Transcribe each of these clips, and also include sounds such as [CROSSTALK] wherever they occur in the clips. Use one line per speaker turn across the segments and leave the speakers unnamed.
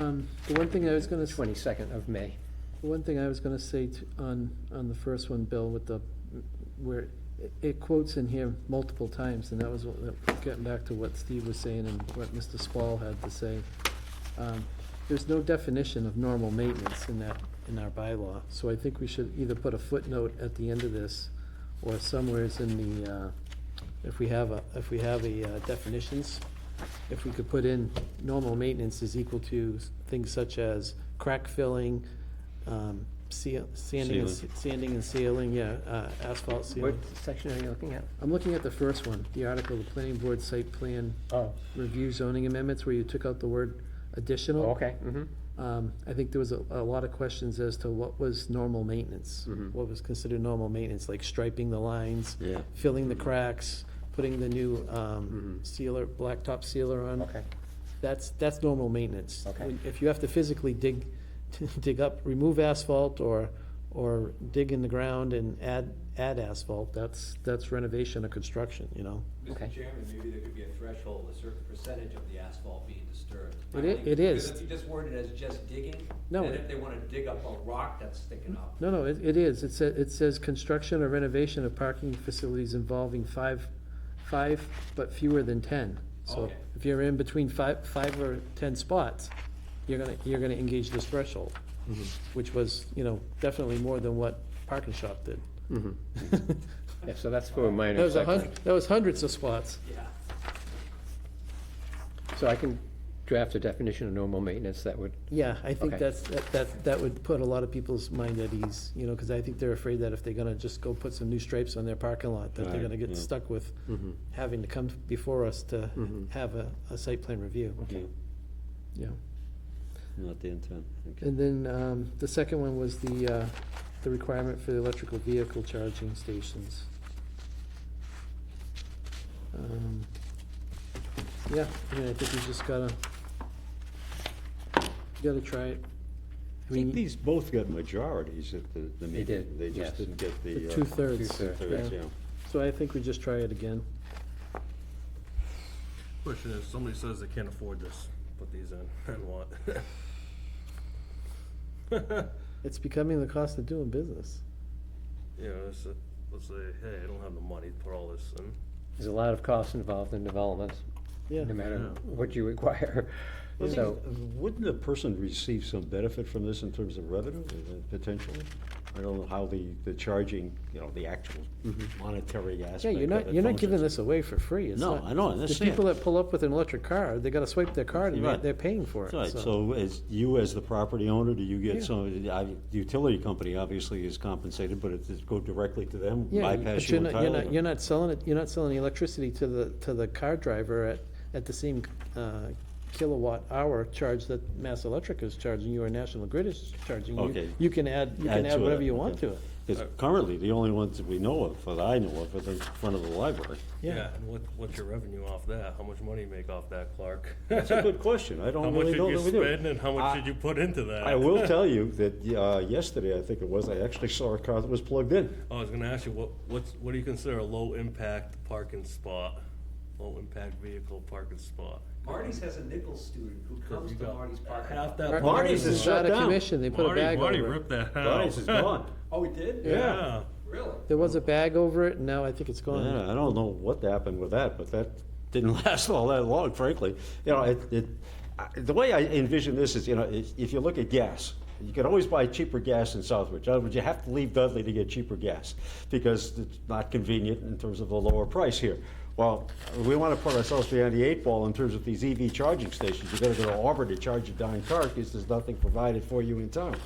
Um, The one thing I was gonna, s-
Twenty-second of May.
the one thing I was gonna say t- on, on the first one, Bill, with the, where it- it quotes in here multiple times, and that was, what- that- getting back to what Steve was saying and what Mr. Spall had to say. Um, There's no definition of normal maintenance in that, in our bylaw, so I think we should either put a footnote at the end of this, or somewheres in the, uh, if we have a, if we have a uh, definitions, if we could put in normal maintenance is equal to s- things such as crack filling, um, seal, sanding, and s-
Sealing.
sanding and sealing, yeah, uh, asphalt
What
sealing.
section are you looking at?
I'm looking at the first one, the article, the planning board site plan
Oh,
review zoning amendments, where you took out the word additional.
okay, mhm.
Um, I think there was a, a lot of questions as to what was normal maintenance,
Mhm.
what was considered normal maintenance, like striping the lines,
Yeah.
filling the cracks, putting the new, um,
Mhm.
sealer, blacktop sealer on.
Okay,
That's, that's normal maintenance.
Okay.
When- If you have to physically dig, [LAUGHS] dig up, remove asphalt or, or dig in the ground and add, add asphalt, that's, that's renovation or construction, you know?
Okay.
Mr. Chairman, maybe there could be a threshold, a certain percentage of the asphalt being disturbed.
It i- it
Because
is.
if you just word it as just digging,
No,
then
it-
if they wanna dig up a rock that's sticking up,
No, no, it, it is. It says, it says construction or renovation of parking facilities involving five, five, but fewer than ten. So
Okay.
if you're in between five, five or ten spots, you're gonna, you're gonna engage this threshold, which was, you know, definitely more than what Parking Shop did.
yeah, so that's for
[LAUGHS]
a
That
minor
was a
site
hun,
plan.
that was hundreds of spots.
yeah.
So I can draft a definition of normal maintenance that would,
Yeah, I think
Okay.
that's, that, that, that would put a lot of people's mind at ease, you know, because I think they're afraid that if they're gonna just go put some new stripes on their parking lot, that they're
Right,
gonna get
yeah.
stuck with having to come before us to have a, a site plan review.
Yeah,
Mm-hmm. Yeah.
Not the intent, okay.
And then, um, the second one was the, uh, the requirement for the electrical vehicle charging stations. Um, Yeah, I mean, I think you just gotta, you gotta try it.
I think these both got majorities at the, the meeting.
did,
They just
yes.
didn't get
The
the. uh,
Two-thirds.
two-thirds,
two-thirds,
yeah.
yeah.
So I think we just try it again.
Question is, somebody says they can't afford this, put these in [LAUGHS]
[LAUGHS]
and what?
It's becoming the cost of doing business.
You know, let's, let's say, hey, I don't have the money to put all this in.
there's a lot of costs involved in development,
Yeah.
no matter what you require.
Well,
So,
I think, uh, Wouldn't the person receive some benefit from this in terms of revenue, uh, potentially? I don't know how the, the charging, you know, the actual monetary aspect
Mm-hmm. Yeah, you're
of
not,
it
you're not
functions.
giving this away for free. It's
No,
not-
I know, I
The
understand.
people that pull up with an electric car, they gotta swipe their card and
You're
they-
right.
they're paying for it,
Right,
so.
so as you, as the property owner, do you
Yeah.
get some, I- the utility company obviously is compensated, but it does go directly to them,
Yeah,
bypass
but
you
you're not, you're
entirely?
not, you're not selling it, you're not selling the electricity to the, to the car driver at, at the same, uh, kilowatt hour charge that Mass Electric is charging you or National Grid is charging you.
Okay.
You can add, you can
Add to
add
it,
whatever you want
okay.
to it.
Uh,
Because currently, the only ones that we know of, that I know of, are the front of the library.
And what, what's your revenue off that? How much money you make off
[LAUGHS]
that, Clark?
That's a good question, I
How
don't
much
really
did
know
you
that we do.
spend and how
I-
much did you put into that?
I
[LAUGHS]
will tell you that uh, yesterday, I think it was, I actually saw a car that was plugged in.
I was gonna ask you, what, what's, what do you consider a low-impact parking spot? Low-impact vehicle parking spot?
Marty's has a Nichols student who comes
you
to
got
Marty's parking
Half
lot.
that.
Marty's
parking
is
lot-
Out
shut
of
down.
commission, they put a
Marty-
bag
Marty
over it.
ripped that out.
Guys,
[LAUGHS]
it's gone.
Oh, he did?
Yeah.
Really?
There was a bag over it, and now I think it's gone.
Yeah, I don't know what happened with that, but that didn't [LAUGHS] last all that long, frankly. You know, it, it, I- the way I envision this is, you know, if, if you look at gas, you can always buy cheaper gas in Southbridge. In other words, you have to leave Dudley to get cheaper gas because it's not convenient in terms of the lower price here. Well, we want to put ourselves behind the eight ball in terms of these EV charging stations. You've got to go to Auburn to charge your darn car because there's nothing provided for you in town.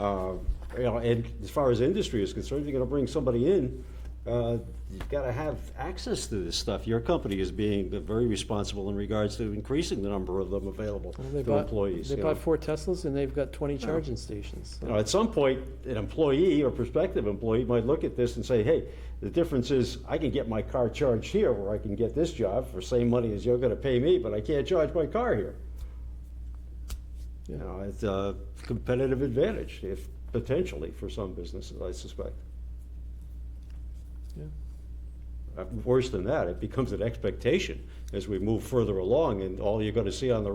Uh, you know, and as far as industry is concerned, you're going to bring somebody in uh, You've got to have access to this stuff. Your company is being very responsible in regards to increasing the number of them available
They
to
bought-
employees.
They
you know.
bought four Teslas and they've got twenty charging stations.
You know, At some point, an employee or prospective employee might look at this and say, hey, the difference is I can get my car charged here where I can get this job for same money as you're going to pay me, but I can't charge my car here.
Yeah.
You know, it's a competitive advantage, if potentially, for some businesses, I suspect.
Yeah.
Uh, Worse than that, it becomes an expectation as we move further along, and all you're gonna see on the